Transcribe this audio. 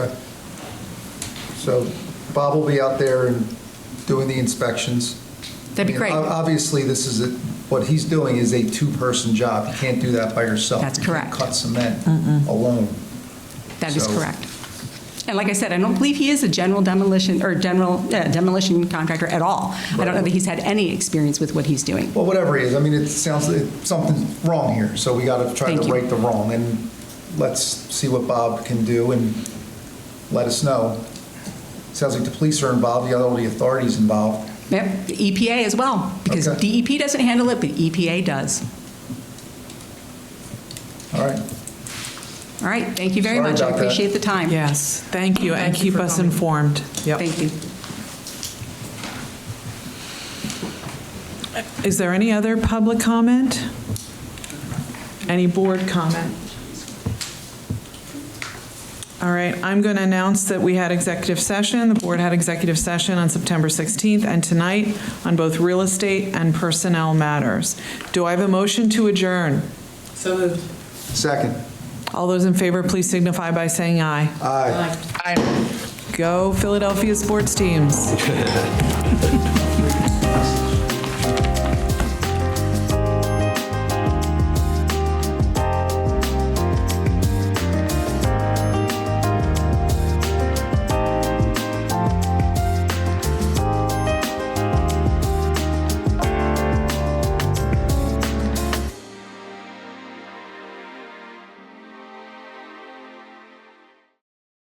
So Bob will be out there and doing the inspections. That'd I be mean, great. ob- Obviously, this is, a- what he's doing is a two-person job. You can't do that by yourself. That's You can't correct. cut cement alone. That is So- correct. And like I said, I don't believe he is a general demolition, or general uh, demolition contractor at all. I don't know that he's had any experience with what he's doing. Well, whatever it is, I mean, it sounds, it- something's wrong here, so we got to try Thank to you. right the wrong. And let's see what Bob can do and let us know. Sounds like the police are involved, you got all the authorities involved. Yep, the EPA as well, because Okay. DEP doesn't handle it, but EPA does. All right. All right, thank you very Sorry much. I about that. appreciate the time. Yes, thank you, and Thank you keep for us coming. informed. Yep. Thank you. Is there any other public comment? Any board comment? All right, I'm going to announce that we had executive session. The board had executive session on September 16th and tonight on both real estate and personnel matters. Do I have a motion to adjourn? So moved. Second. All those in favor, please signify by saying aye. Aye. Go Philadelphia sports teams.